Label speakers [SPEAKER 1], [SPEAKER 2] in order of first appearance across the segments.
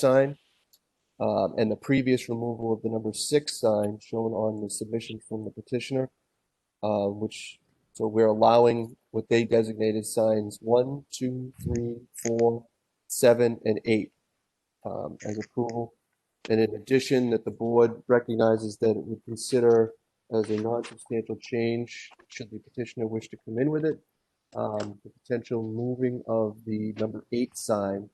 [SPEAKER 1] sign, um, and the previous removal of the number six sign shown on the submission from the petitioner, uh, which, so we're allowing what they designated signs one, two, three, four, seven, and eight um, as approval. And in addition, that the board recognizes that it would consider as a non-substantial change, should the petitioner wish to come in with it, um, the potential moving of the number eight sign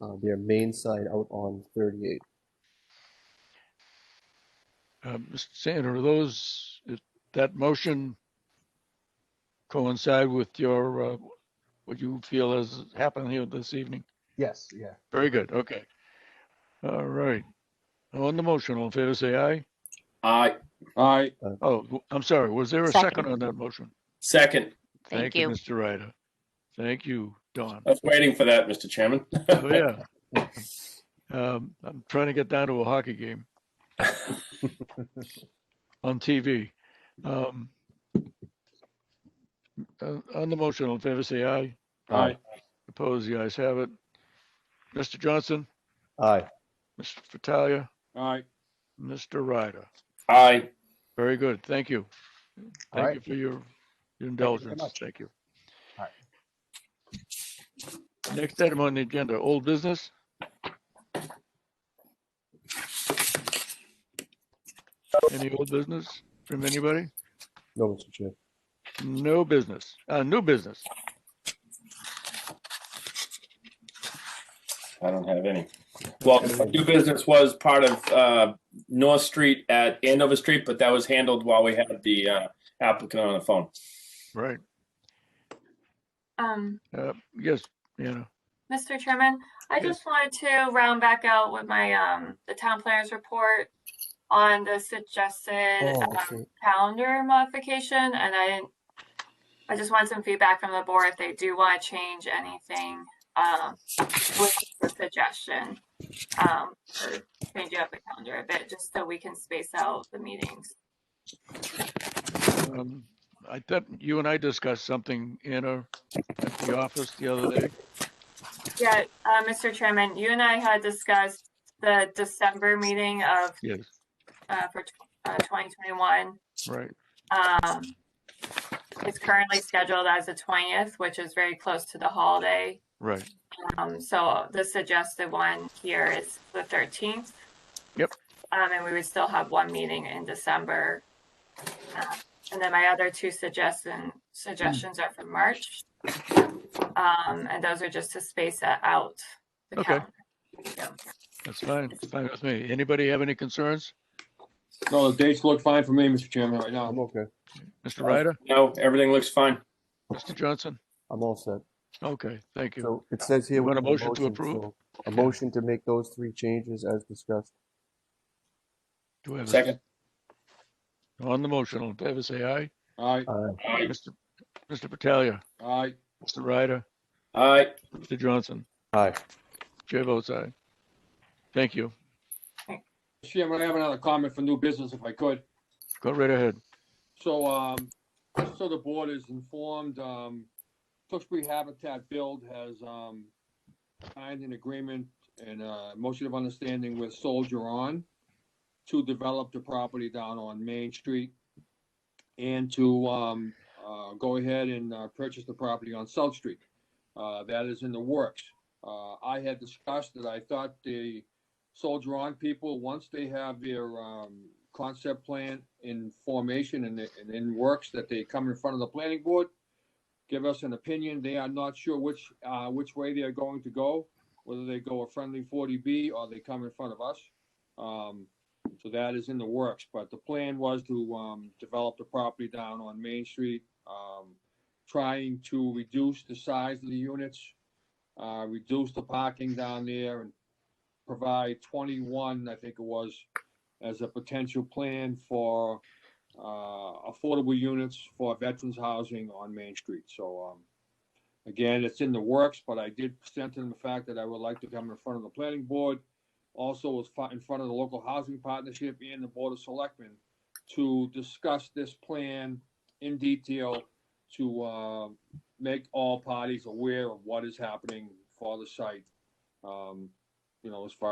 [SPEAKER 1] uh, their main sign out on 38.
[SPEAKER 2] Uh, Mr. Sander, are those, is that motion coincide with your, uh, what you feel has happened here this evening?
[SPEAKER 3] Yes, yeah.
[SPEAKER 2] Very good, okay. All right. On the motion, all in favor, say aye.
[SPEAKER 4] Aye. Aye.
[SPEAKER 2] Oh, w- I'm sorry, was there a second on that motion?
[SPEAKER 4] Second.
[SPEAKER 5] Thank you.
[SPEAKER 2] Mr. Ryder. Thank you, Don.
[SPEAKER 4] I was waiting for that, Mr. Chairman.
[SPEAKER 2] Oh, yeah. Um, I'm trying to get down to a hockey game on TV. Um, uh, On the motion, all in favor, say aye.
[SPEAKER 4] Aye.
[SPEAKER 2] Opposed, the ayes have it. Mr. Johnson,
[SPEAKER 1] Aye.
[SPEAKER 2] Mr. Fattalia,
[SPEAKER 4] Aye.
[SPEAKER 2] Mr. Ryder.
[SPEAKER 4] Aye.
[SPEAKER 2] Very good. Thank you.
[SPEAKER 3] All
[SPEAKER 2] Thank
[SPEAKER 3] right.
[SPEAKER 2] you for your your indulgence.
[SPEAKER 3] much.
[SPEAKER 2] Thank you.
[SPEAKER 3] All
[SPEAKER 2] Next item on the agenda, old business. Any old business from anybody?
[SPEAKER 1] No, Mr. Chair.
[SPEAKER 2] No business, uh, new business.
[SPEAKER 4] I don't have any. Well, my new business was part of uh, North Street at Andover Street, but that was handled while we had the uh, applicant on the phone.
[SPEAKER 2] Right.
[SPEAKER 6] Um,
[SPEAKER 2] Uh, yes, Anna.
[SPEAKER 6] Mr. Chairman, I
[SPEAKER 2] Yes.
[SPEAKER 6] just wanted to round back out with my, um, the town planners report on the suggested
[SPEAKER 1] Oh,
[SPEAKER 6] um,
[SPEAKER 1] okay.
[SPEAKER 6] calendar modification, and I didn't, I just want some feedback from the board if they do want to change anything, um, with the suggestion. Um, or change up the calendar a bit, just so we can space out the meetings.
[SPEAKER 2] Um, I thought you and I discussed something, Anna, at the office the other day.
[SPEAKER 6] Yeah, uh, Mr. Chairman, you and I had discussed the December meeting of
[SPEAKER 2] Yes,
[SPEAKER 6] uh, for tw- uh, 2021.
[SPEAKER 2] right.
[SPEAKER 6] Um, It's currently scheduled as the 20th, which is very close to the holiday.
[SPEAKER 2] Right.
[SPEAKER 6] Um, So the suggested one here is the 13th.
[SPEAKER 2] Yep.
[SPEAKER 6] Um, And we would still have one meeting in December. Uh, And then my other two suggestion, suggestions are for March. Um, And those are just to space that out. the
[SPEAKER 2] Okay.
[SPEAKER 6] calendar.
[SPEAKER 2] That's fine. It's fine with me. Anybody have any concerns?
[SPEAKER 7] No, the dates look fine for me, Mr. Chairman, right now.
[SPEAKER 1] I'm okay.
[SPEAKER 2] Mr. Ryder,
[SPEAKER 4] No, everything looks fine.
[SPEAKER 2] Mr. Johnson?
[SPEAKER 1] I'm all set.
[SPEAKER 2] Okay, thank you.
[SPEAKER 1] So it says here.
[SPEAKER 2] You
[SPEAKER 1] we
[SPEAKER 2] want a
[SPEAKER 1] need
[SPEAKER 2] motion to approve?
[SPEAKER 1] so A motion to make those three changes as discussed.
[SPEAKER 2] Do we have a
[SPEAKER 4] Second.
[SPEAKER 2] On the motion, all in favor, say aye.
[SPEAKER 7] Aye,
[SPEAKER 4] Aye.
[SPEAKER 2] Mr. Mr. Battaglia,
[SPEAKER 7] aye,
[SPEAKER 2] Mr. Ryder,
[SPEAKER 4] Aye.
[SPEAKER 2] Mr. Johnson,
[SPEAKER 1] Aye.
[SPEAKER 2] chair votes aye. Thank you.
[SPEAKER 7] Mr. Chairman, I have another comment for new business if I could.
[SPEAKER 2] Go right ahead.
[SPEAKER 7] So, um, just so the board is informed, um, Tewksbury Habitat Build has, um, signed an agreement and a motion of understanding with Soldier On to develop the property down on Main Street and to, um, uh, go ahead and, uh, purchase the property on South Street. Uh, that is in the works. Uh, I had discussed that I thought the Soldier On people, once they have their, um, concept plan in formation and, and in works that they come in front of the planning board. Give us an opinion. They are not sure which, uh, which way they are going to go, whether they go a friendly forty B or they come in front of us. Um, so that is in the works, but the plan was to, um, develop the property down on Main Street. Um, trying to reduce the size of the units, uh, reduce the parking down there and provide twenty-one, I think it was, as a potential plan for uh, affordable units for veterans housing on Main Street. So um, again, it's in the works, but I did present to them the fact that I would like to come in front of the planning board. Also was fi- in front of the local housing partnership and the board of selectmen to discuss this plan in detail to uh, make all parties aware of what is happening for the site. Um, You know, as far